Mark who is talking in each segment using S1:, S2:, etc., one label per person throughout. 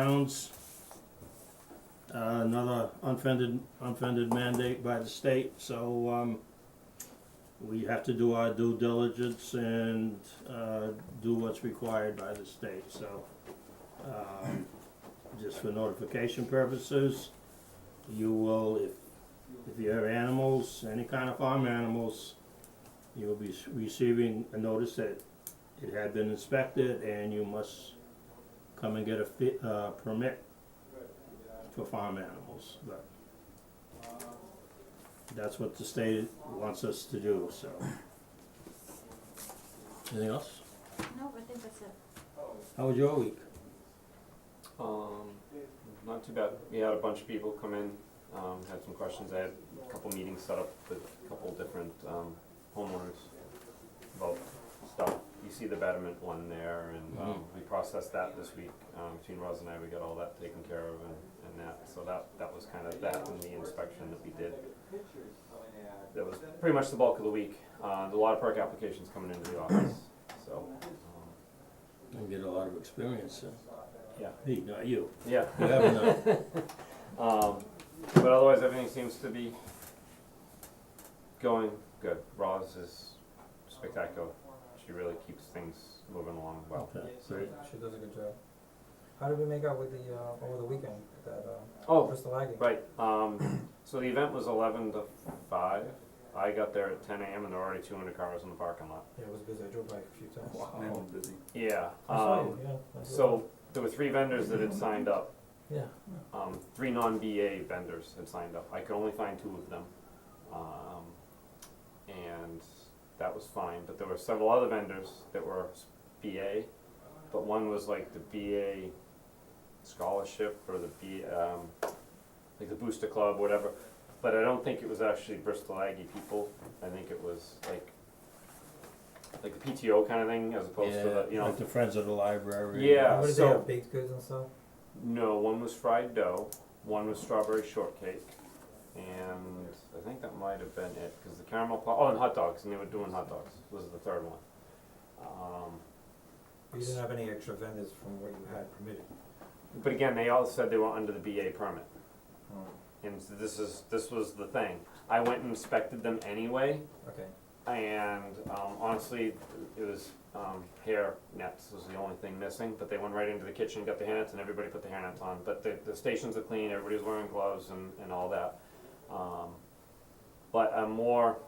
S1: towns. Uh, another unfunded, unfunded mandate by the state, so, um, we have to do our due diligence and, uh, do what's required by the state, so, um, just for notification purposes, you will, if, if you have animals, any kind of farm animals, you'll be s- receiving a notice that it had been inspected and you must come and get a fi- uh, permit for farm animals, but that's what the state wants us to do, so. Anything else?
S2: No, I think that's it.
S1: How was your week?
S3: Um, not too bad. We had a bunch of people come in, um, had some questions. I had a couple meetings set up with a couple different, um, homeowners about stuff. You see the betterment one there and, um, we processed that this week. Um, between Roz and I, we got all that taken care of and, and that. So that, that was kind of that and the inspection that we did. That was pretty much the bulk of the week. Uh, the water park application's coming into the office, so, um,
S1: You get a lot of experience, so.
S3: Yeah.
S1: Me, not you.
S3: yeah.
S1: You have enough.
S3: Um, but otherwise, everything seems to be going good. Roz is spectacular. She really keeps things moving along well.
S1: Okay, great.
S4: She does a good job. How did we make out with the, uh, over the weekend, with that, uh,
S3: Oh,
S4: Crystal Aggie?
S3: right. Um, so the event was 11 to 5. I got there at 10 a.m. and there were already 200 cars in the parking lot.
S4: Yeah, it was busy, I drove by a few times.
S5: busy.
S3: Yeah.
S4: I saw you,
S3: Um,
S4: yeah. I drove
S3: so there were three vendors that had signed up.
S4: by. Yeah,
S3: um, three non-BA vendors had signed up. I could only find two of them. Um, and that was fine, but there were several other vendors that were s- BA, but one was like the BA scholarship or the B, um, like the booster club, whatever. But I don't think it was actually Bristol Aggie people. I think it was like, like the PTO kind of thing as opposed to the, you
S1: Yeah,
S3: know,
S1: like the friends of the library.
S3: Yeah,
S4: what did they
S3: so-
S4: have, baked goods and stuff?
S3: No, one was fried dough, one was strawberry shortcake, and I think that might have been it because the caramel pop. Oh, and hot dogs, and they were doing hot dogs. Was the third one. Um,
S4: You didn't have any extra vendors from what you had permitted?
S3: but again, they all said they were under the BA permit,
S4: Oh,
S3: and so this is this was the thing. I went and inspected them anyway,
S4: okay.
S3: and um, honestly, it was um, hair nets was the only thing missing. But they went right into the kitchen, got the hair nets, and everybody put the hair nets on. But the, the stations are clean. Everybody's wearing gloves and, and all that. Um, but I'm more.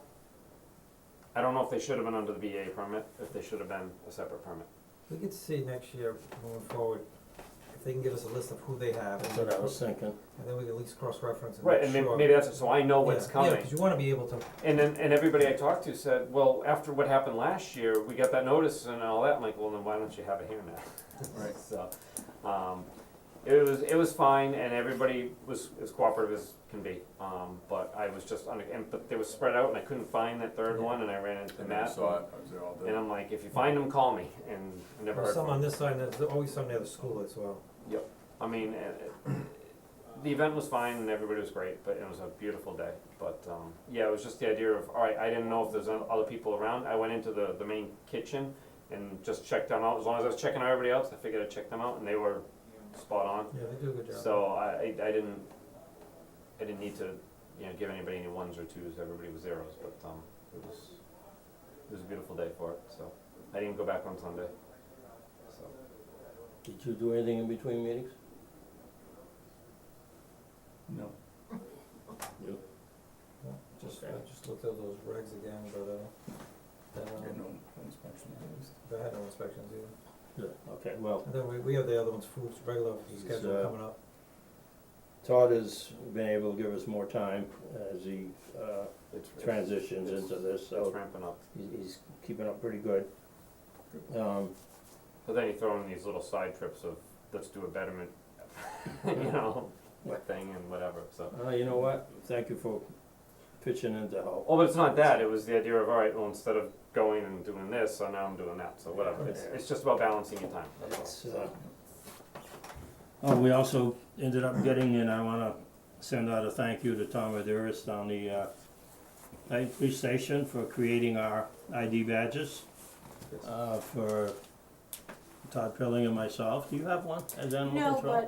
S3: I don't know if they should have been under the BA permit. If they should have been a separate permit.
S4: We could see next year, moving forward, if they can give us a list of who they have,
S1: That's
S4: and
S1: what I was thinking.
S4: and then we can at least cross-reference and
S3: Right,
S4: make
S3: and may-
S4: sure.
S3: maybe that's it. So I know what's
S4: Yeah,
S3: coming.
S4: Yeah, 'cause you wanna be able to,
S3: And then, and everybody I talked to said, well, after what happened last year, we got that notice and all that, I'm like, well, then why don't you have it here now?
S5: Right.
S3: So, um, it was, it was fine, and everybody was as cooperative as can be, um, but I was just, under- and, but they were spread out, and I couldn't find that third
S4: Yeah.
S3: one, and I ran into
S5: And I
S3: Matt.
S5: saw it, I was there all
S3: And
S5: day.
S3: I'm like, if you find them, call me, and I never heard
S4: there's
S3: from
S4: some on
S3: them.
S4: this side, and there's always some near the school as well.
S3: I mean, it, it, the event was fine and everybody was great, but it was a beautiful day. But um, yeah, it was just the idea of all right. I didn't know if there's o- other people around. I went into the the main kitchen and just checked them out. As long as I was checking out everybody else, I figured I'd check them out, and they were spot on.
S4: Yeah, they do a good job.
S3: So I, I I didn't I didn't need to you know give anybody any ones or twos. Everybody was zeros, but um, it was it was a beautiful day for it. So I didn't go back on Sunday. So.
S1: Did you do anything in between meetings?
S5: No.
S4: Just,
S1: Okay.
S4: I just looked at those regs again, but, uh, that,
S5: I
S4: um,
S5: had no inspection noticed.
S4: they had no inspections either.
S1: Yeah, okay, well,
S4: And then we, we have the other ones, foods, regular food
S1: He's,
S4: schedule
S1: uh,
S4: coming up.
S1: Todd has been able to give us more time as he, uh,
S3: It's, it's-
S1: transitions into this,
S3: it's
S1: so
S3: ramping up.
S1: he's, he's keeping up pretty good. Um,
S3: But then you throw in these little side trips of let's do a betterment, you know,
S1: Right.
S3: thing and whatever. So,
S1: uh, you know what, thank you for pitching in to help.
S3: oh, but it's not that. It was the idea of all right. Well, instead of going and doing this, so now I'm doing that. So whatever. It's, it's just about balancing your time. That's all.
S1: It's, uh, oh, we also ended up getting, and I wanna send out a thank you to Tom Adiris down the, uh, Dayton Police Station for creating our ID badges,
S3: Yes.
S1: uh, for Todd Pilling and myself. Do you have one as animal
S2: No,
S1: control?
S2: but